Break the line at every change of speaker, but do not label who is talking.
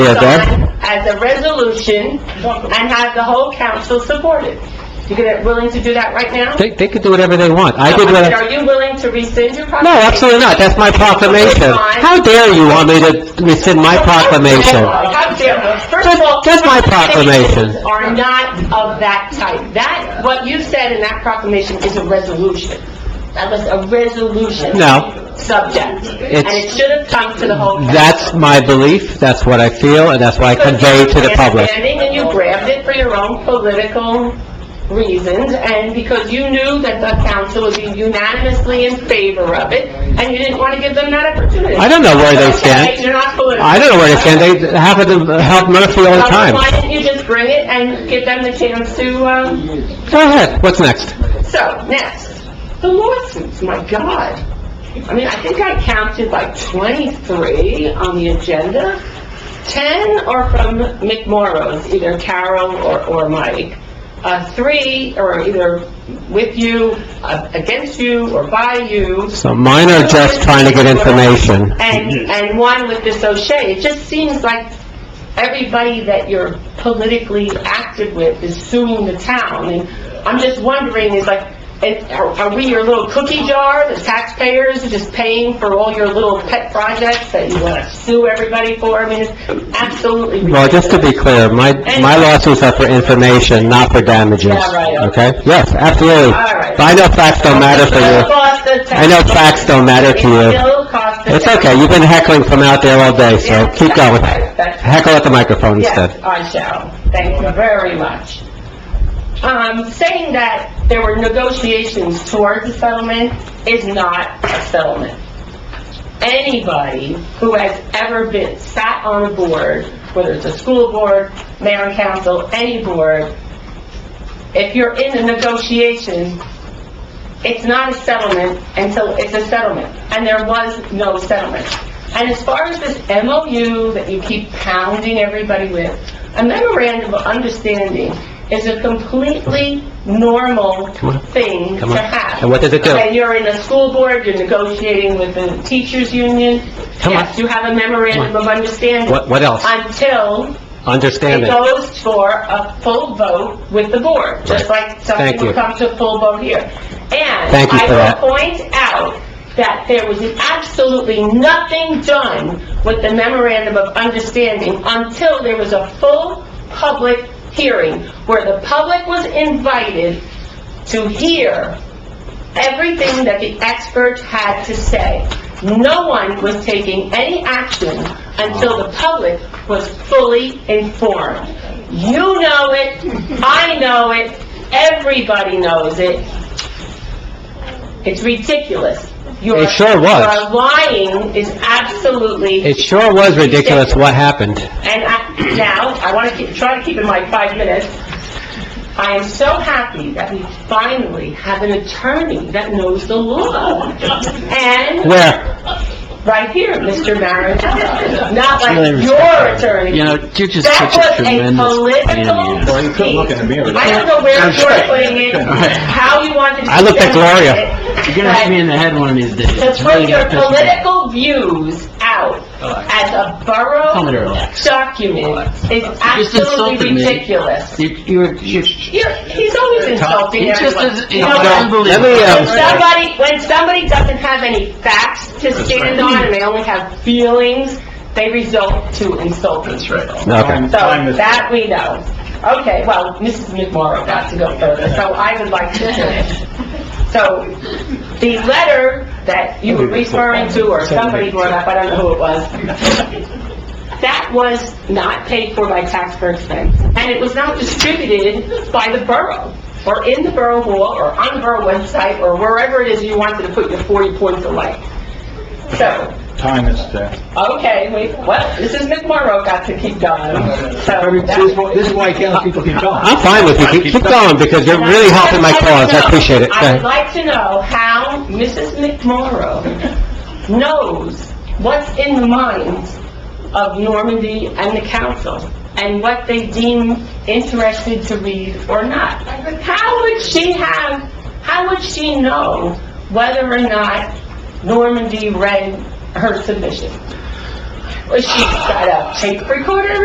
Yeah, that,
signed as a resolution and have the whole council support it. You gonna, willing to do that right now?
they, they could do whatever they want. I did what
said,
I...
Are you willing to rescind your proclamation?
No, absolutely not. That's my proclamation. How dare you want me to rescind my proclamation?
How dare- First
That-
of all...
that's my proclamation.
proclamations Are not of that type. That, what you said in that proclamation is a resolution. That was a resolution.
No.
Subject. And
It's-
it should have come to the whole council.
That's my belief, that's what I feel, and that's what I convey to the public.
Understanding, And you grabbed it for your own political reasons, and because you knew that the council would be unanimously in favor of it, and you didn't want to give them that opportunity.
I don't know where they stand.
Okay, You're not political.
I don't know where to stand, they happen to help Murphy all the time.
So Why didn't you just bring it and give them the chance to, um,
Go ahead, what's next?
so, next, the lawsuits, my God. I mean, I think I counted like 23 on the agenda. 10 are from McMorrows, either Carol or, or Mike. Uh, three are either with you, uh, against you, or by you.
So mine are just trying to get information.
And, and one with this O'Shea. It just seems like everybody that you're politically active with is suing the town. And I'm just wondering, is like, it- are are we your little cookie jar, the taxpayers are just paying for all your little pet projects that you want to sue everybody for? I mean, it's absolutely
Well,
ridiculous.
just to be clear, my, my lawsuits are for information, not for damages,
Yeah, right, okay.
okay? Yes, absolutely.
All right.
But I know facts don't matter for
It
you.
costs the tax-
I know facts don't matter to
It
you.
still costs the
It's
tax-
okay, you've been heckling from out there all day, so
Yes,
keep
that's
going.
right, that's right.
Heckle at the microphone instead.
Yes, I shall. Thank you very much. Um, saying that there were negotiations towards a settlement is not a settlement. Anybody who has ever been, sat on a board, whether it's a school board, mayor and council, any board, if you're in a negotiation, it's not a settlement until it's a settlement, and there was no settlement. And as far as this MOU that you keep pounding everybody with, a memorandum of understanding is a completely normal
on.
thing
Come on.
to have.
And what does it do?
Okay, you're in a school board, you're negotiating with the teachers' union.
Come on.
Yes, you have a memorandum of understanding.
What, what else?
Until
Understand
it
it.
goes for a full vote with the board, just
Right.
like something
Thank you.
will come to a full vote here. And
Thank you for
I
that.
will point out that there was absolutely nothing done with the memorandum of understanding until there was a full public hearing, where the public was invited to hear everything that the experts had to say. No one was taking any action until the public was fully informed. You know it, I know it, everybody knows it. It's ridiculous.
It sure was.
Your lying is absolutely
It sure was ridiculous what happened.
and I, now, I want to keep, try to keep in my five minutes. I am so happy that we finally have an attorney that knows the law. And,
Where?
right here, Mr. Marinello, not like
Really
your attorney.
You know, you're just
That
such a
was a
tremendous pain in the ass.
political
Well, you couldn't look at me.
scheme. I don't know where
I'm
you're
sorry.
putting it, how you wanted to...
I looked at Gloria.
You're gonna hit me in the head one of these days.
To
It's
put
really
your
gonna piss me off.
political views out as a borough
Tell me to relax.
document is
just
absolutely
insulted me.
ridiculous.
You- You're, you're,
You're, he's always insulting
It's just,
everyone.
it's
You know, when-
unbelievable.
Let me,
When
um,
somebody, when somebody doesn't have any facts to stand on and they only have feelings, they result to insulting. That's right.
Okay.
So that we know. Okay, well, Mrs. McMorro got to go further, so I would like to finish. So the letter that you were referring to, or somebody brought up, I don't know who it was, that was not paid for by taxpayer expense, and it was not distributed by the borough, or in the borough hall, or on the borough website, or wherever it is you wanted to put your 40 points of light. So,
Time is there.
Okay, wait, well, Mrs. McMorro got to keep going, so...
This is why- this is why townspeople keep going.
I'm fine with you, Keep- keep going, because you're really helping my cause, I appreciate it. Go
I would
ahead.
like to know how Mrs. McMorro knows what's in the minds of Normandy and the council, and what they deem interested to read or not. How would she have, how would she know whether or not Normandy read her submission? Well, she got a tape recorder